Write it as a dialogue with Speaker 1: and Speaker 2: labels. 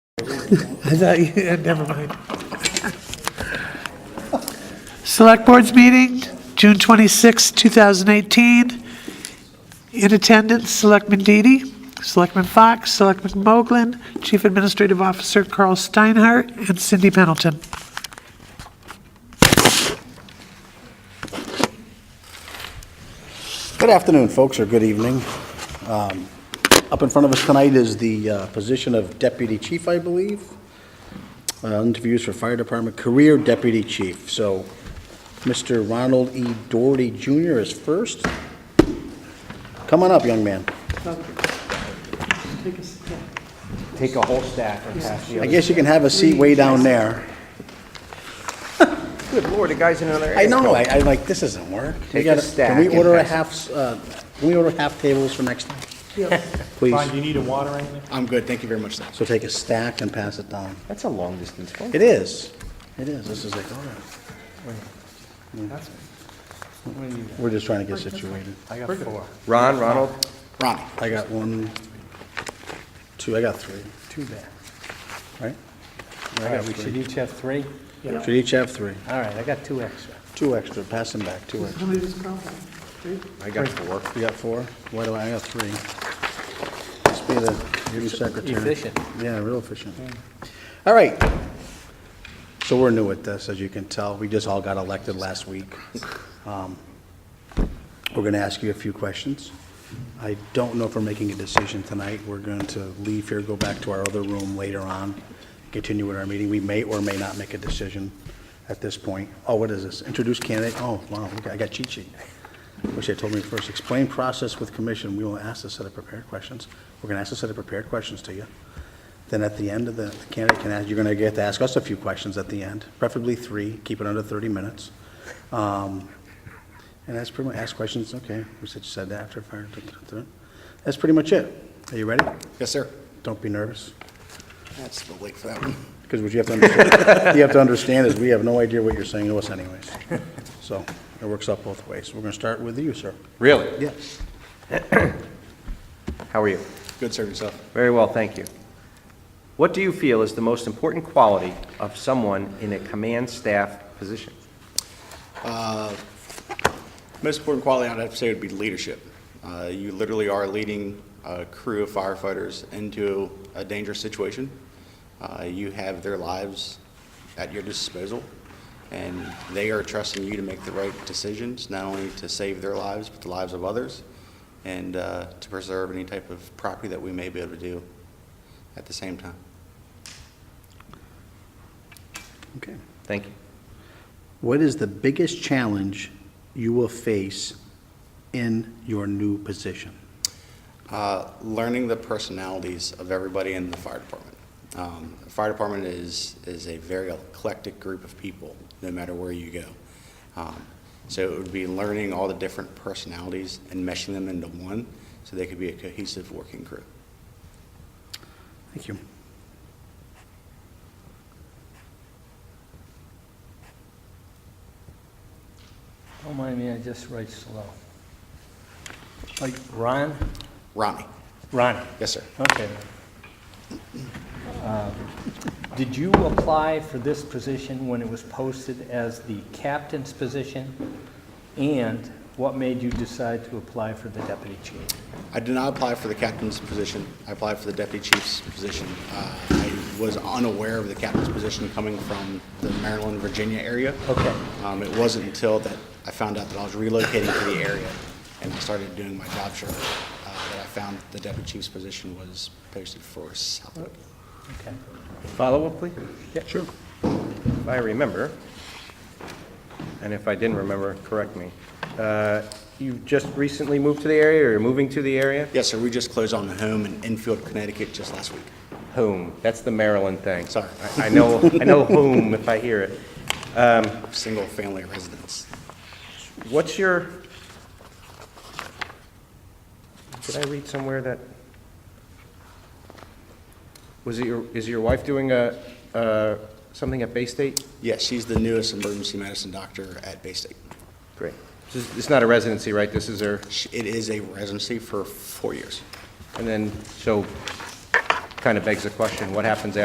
Speaker 1: I thought you, never mind. Select Board's meeting, June 26, 2018. In attendance, Selectman Deedy, Selectman Fox, Selectman Moglen, Chief Administrative Officer Carl Steinhardt, and Cindy Pendleton.
Speaker 2: Good afternoon, folks, or good evening. Um, Up in front of us tonight is the uh, position of deputy chief, I believe. Uh, Interviews for fire department career deputy chief. So Mr. Ronald E. Doherty Jr. is first. Come on up, young man.
Speaker 3: Take a whole stack and pass the
Speaker 2: I
Speaker 3: other.
Speaker 2: guess you can have a seat way down there.
Speaker 3: Good lord, the guy's in another
Speaker 2: I know, I, I like, this doesn't work. We
Speaker 3: Take a
Speaker 2: gotta-
Speaker 3: stack
Speaker 2: Can we
Speaker 3: and
Speaker 2: order a
Speaker 3: pass it.
Speaker 2: half, s- uh, can we order half tables for next time?
Speaker 4: Ron,
Speaker 2: Please.
Speaker 4: do you need a water or anything?
Speaker 5: I'm good, thank you very much, sir.
Speaker 2: So take a stack and pass it down.
Speaker 3: That's a long distance phone.
Speaker 2: It is. It is. This is like, oh, all right. We're just trying to get situated.
Speaker 4: I got four.
Speaker 3: Ron, Ronald,
Speaker 2: Ronnie. I got one, two, I got three. Two there. Right? I got
Speaker 5: We should
Speaker 2: three.
Speaker 5: each have three?
Speaker 2: Should each have three.
Speaker 5: All right, I got two extra.
Speaker 2: Two extra. Pass them back, two extra.
Speaker 3: I got four.
Speaker 2: You got four? Why do I, I got three? Must be the new secretary.
Speaker 5: Efficient.
Speaker 2: Yeah, real efficient. All right. So we're new at this, as you can tell. We just all got elected last week. Um, We're going to ask you a few questions. I don't know if we're making a decision tonight. We're going to leave here, go back to our other room later on, continue with our meeting. We may or may not make a decision at this point. Oh, what is this? Introduce candidate? Oh, wow, look, I got cheat sheet. Wish they told me first. Explain process with commission. We will ask a set of prepared questions. We're going to ask a set of prepared questions to you. Then at the end of the, the candidate can ask, you're gonna get to ask us a few questions at the end, preferably three, keep it under thirty minutes. Um, And that's pretty much, ask questions, okay, we said, you said that after fire. da, da, da. That's pretty much it. Are you ready?
Speaker 5: Yes, sir.
Speaker 2: Don't be nervous,
Speaker 5: That's the late for that one.
Speaker 2: because what you have to understand, you have to understand is we have no idea what you're saying to us anyways. So, it works out both ways. We're gonna start with you, sir.
Speaker 3: Really?
Speaker 2: Yes.
Speaker 3: How are you?
Speaker 5: Good, sir, yourself.
Speaker 3: Very well, thank you. What do you feel is the most important quality of someone in a command staff position?
Speaker 5: Most important quality I'd have to say would be leadership. Uh, You literally are leading a crew of firefighters into a dangerous situation. Uh, You have their lives at your disposal, and they are trusting you to make the right decisions, not only to save their lives, but the lives of others, and uh, to preserve any type of property that we may be able to do at the same time.
Speaker 2: Okay.
Speaker 3: Thank you.
Speaker 2: What is the biggest challenge you will face in your new position?
Speaker 5: Uh, learning the personalities of everybody in the fire department. Um, the fire department is, is a very eclectic group of people, no matter where you go. Um, so it would be learning all the different personalities and meshing them into one so they could be a cohesive working group.
Speaker 2: Thank you.
Speaker 6: Don't mind me, I just write slow. Like Ron?
Speaker 5: Ronnie?
Speaker 6: Ron.
Speaker 5: Yes, sir.
Speaker 6: Okay. Um, Did you apply for this position when it was posted as the captain's position? And what made you decide to apply for the deputy chief?
Speaker 5: I did not apply for the captain's position. I applied for the deputy chief's position. Uh, I was unaware of the captain's position coming from the Maryland, Virginia area.
Speaker 6: Okay.
Speaker 5: Um, It wasn't until that I found out that I was relocating to the area and I started doing my job search uh, that I found the deputy chief's position was posted for Southwood.
Speaker 6: Okay.
Speaker 3: Follow-up, please?
Speaker 6: Yeah,
Speaker 3: sure. If I remember, and if I didn't remember, correct me. Uh, You just recently moved to the area, or you're moving to the area?
Speaker 5: Yes, sir, we just closed on a home in Enfield, Connecticut just last week.
Speaker 3: Whom? That's the Maryland thing.
Speaker 5: Sorry.
Speaker 3: I I know, I know whom if I hear it.
Speaker 5: Single-family residence.
Speaker 3: What's your, did I read somewhere that, was it your, is your wife doing a, uh, something at Bay State?
Speaker 5: Yes, she's the newest emergency medicine doctor at Bay State.
Speaker 3: Great. This is- It's not a residency, right? This is her,
Speaker 5: She- It is a residency for four years.
Speaker 3: and then, so, kind of begs the question, what happens after